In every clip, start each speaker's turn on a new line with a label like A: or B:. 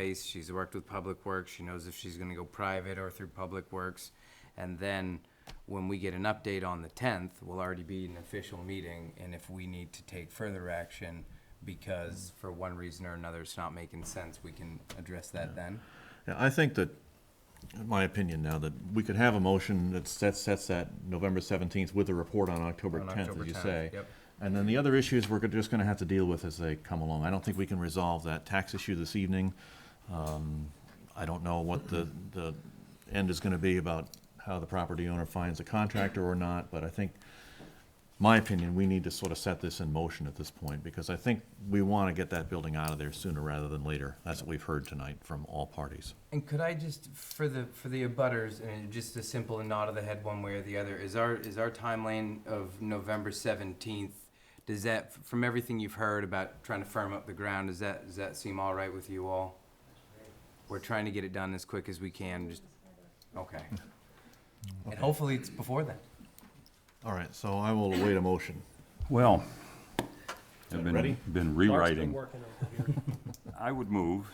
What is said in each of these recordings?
A: place, she's worked with Public Works, she knows if she's gonna go private or through Public Works. And then, when we get an update on the tenth, we'll already be in an official meeting, and if we need to take further action, because for one reason or another, it's not making sense, we can address that then.
B: Yeah, I think that, in my opinion now, that we could have a motion that sets, sets that November seventeenth with a report on October
A: On
B: tenth,
A: October
B: as you
A: 10th,
B: say.
A: yep.
B: And then the other issues we're go- just gonna have to deal with as they come along. I don't think we can resolve that tax issue this evening. Um, I don't know what the, the end is gonna be about how the property owner finds a contractor or not, but I think my opinion, we need to sort of set this in motion at this point, because I think we want to get that building out of there sooner rather than later. That's what we've heard tonight from all parties.
A: And could I just, for the, for the abutters, and just a simple nod of the head one way or the other, is our, is our timeline of November seventeenth, does that, from everything you've heard about trying to firm up the ground, does that, does that seem all right with you all? We're trying to get it done as quick as we can, just, okay. And hopefully it's before then.
B: All right, so I will await a motion.
C: Well, I've
B: ready?
C: been, been rewriting. I would move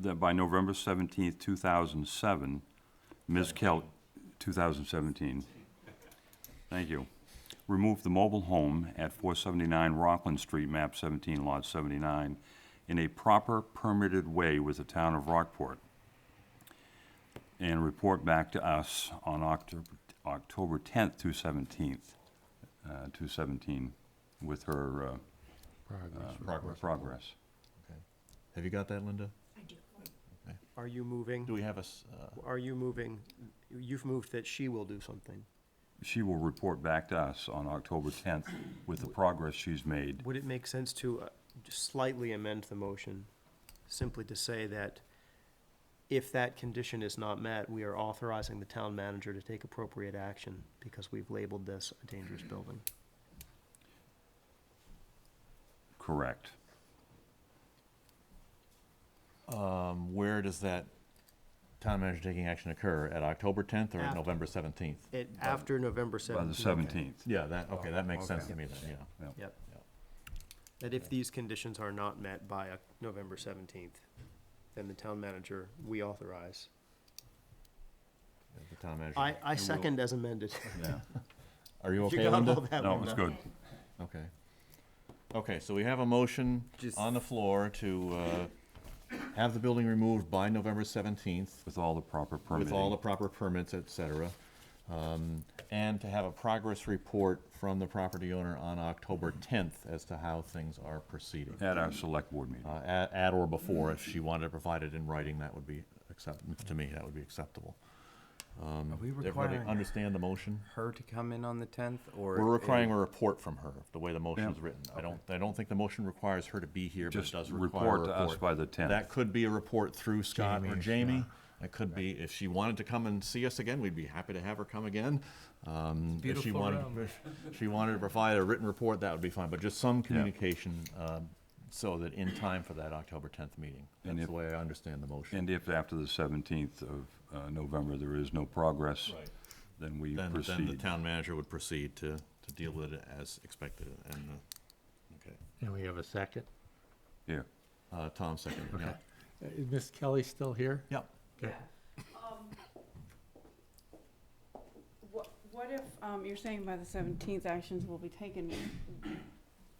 C: that by November seventeenth, two thousand seven, Ms. Kelly, two thousand seventeen, thank you, remove the mobile home at four seventy-nine Rockland Street, map seventeen, lot seventy-nine, in a proper permitted way with the town of Rockport, and report back to us on October, October tenth to seventeenth, uh, to seventeen, with her, uh, uh, Progress.
B: Have you got that, Linda?
D: Are you moving?
B: Do we have a, s- uh,
D: Are you moving? You've moved that she will do something.
C: She will report back to us on October 10th with the progress she's made.
D: Would it make sense to uh, just slightly amend the motion, simply to say that if that condition is not met, we are authorizing the town manager to take appropriate action because we've labeled this a dangerous building?
C: Correct.
B: um, where does that town manager taking action occur? At October tenth or at
D: After.
B: November seventeenth?
D: It, after November
C: By the
D: seventeenth.
C: 17th.
B: Yeah, that, okay, that makes sense
A: Okay.
B: to me then, yeah.
D: Yep. That if these conditions are not met by uh, November seventeenth, then the town manager, we authorize.
B: The town manager.
D: I, I second as amended.
C: Yeah.
B: Are you
D: You
B: okay,
D: got all
B: Linda?
D: that,
C: No,
D: Linda?
C: it's good.
B: Okay. Okay, so we have a motion
A: Just-
B: on the floor to, uh, have the building removed by November seventeenth
C: With all the proper
B: with all the
C: permitting.
B: proper permits, et cetera. Um, and to have a progress report from the property owner on October tenth as to how things are proceeding.
C: At our select board meeting.
B: Uh, at, at or before, if she wanted to provide it in writing, that would be accept, to me, that would be acceptable.
A: Are we
B: Everybody
A: requiring
B: understand the motion?
A: her to come in on the tenth, or?
B: We're requiring
A: a-
B: a report from her, the way the motion is
C: Yeah.
B: written. I don't, I don't think the motion requires her to be here, but it
C: Just
B: does require a
C: report
B: report.
C: to us by the
B: That
C: 10th.
B: could be a report through Scott or Jamie. It could be, if she wanted to come and see us again, we'd be happy to have her come again. Um, if she
A: Beautiful
B: wanted,
A: room.
B: if she wanted to provide a written report, that would be fine, but just some communication, um, so that in time for that October tenth meeting.
C: And
B: That's
C: if-
B: the way I understand the motion.
C: And if after the 17th of uh, November there is no progress,
B: Right.
C: then we
B: Then, then the
C: proceed.
B: town manager would proceed to, to deal with it as expected and, uh, okay.
E: And we have a second.
C: Yeah.
B: Uh, Tom seconded, yeah.
E: Uh, Is Miss Kelly still here?
B: Yep.
E: Okay.
F: What, what if, um, you're saying by the seventeenth, actions will be taken,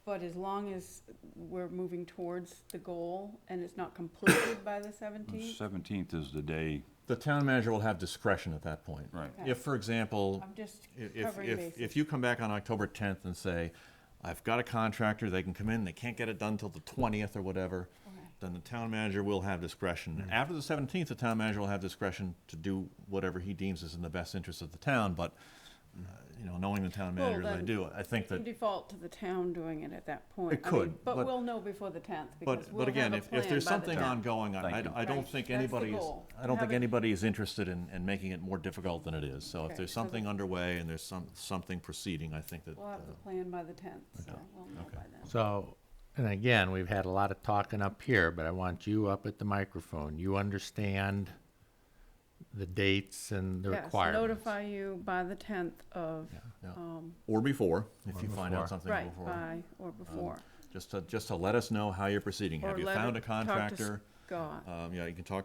F: but as long as we're moving towards the goal and it's not completed by the
C: The
F: seventeenth?
C: 17th is the day,
B: The town manager will have discretion at that point.
C: right.
F: Okay.
B: If, for example,
F: I'm just
B: i- if,
F: covering
B: if,
F: bases.
B: if you come back on October tenth and say, I've got a contractor, they can come in, they can't get it done till the twentieth or whatever,
F: Okay.
B: then the town manager will have
C: Mm-hmm.
B: discretion. After the seventeenth, the town manager will have discretion to do whatever he deems is in the best interest of the town, but, uh,
C: Mm-hmm.
B: you know, knowing the town
F: Well,
B: manager as I
F: then
B: do, I think that.
F: Default to the town doing it at that point.
B: It
F: I mean,
B: could, but-
F: But we'll know before the tenth, because
B: But,
F: we'll
B: but
F: have
B: again,
F: a
B: if, if
F: plan
B: there's
F: by the
B: something
F: tenth.
B: ongoing, I, I
C: Thank you.
B: I don't
F: Right,
B: think
F: that's the
B: anybody is,
F: goal.
B: I don't think
F: Have it-
B: anybody is interested in, in making it more difficult than it is. So if
F: Okay,
B: there's
F: so the-
B: something underway and there's some, something proceeding, I think that,
F: We'll have the
B: uh,
F: plan by the tenth, so we'll know by then.
E: So, and again, we've had a lot of talking up here, but I want you up at the microphone. You understand the dates and the
F: Yes,
E: requirements.
F: Notify you by the tenth of,
B: yeah.
F: um,
B: or before, if you find
E: before.
B: out something
F: right, Uh,
B: before. Um,
F: by or before.
B: Just to, just to let us know how you're proceeding. Have
F: Or
B: you
F: let
B: found a
F: it- talk to s-
B: contractor?
F: God.
B: Um, yeah, you can talk to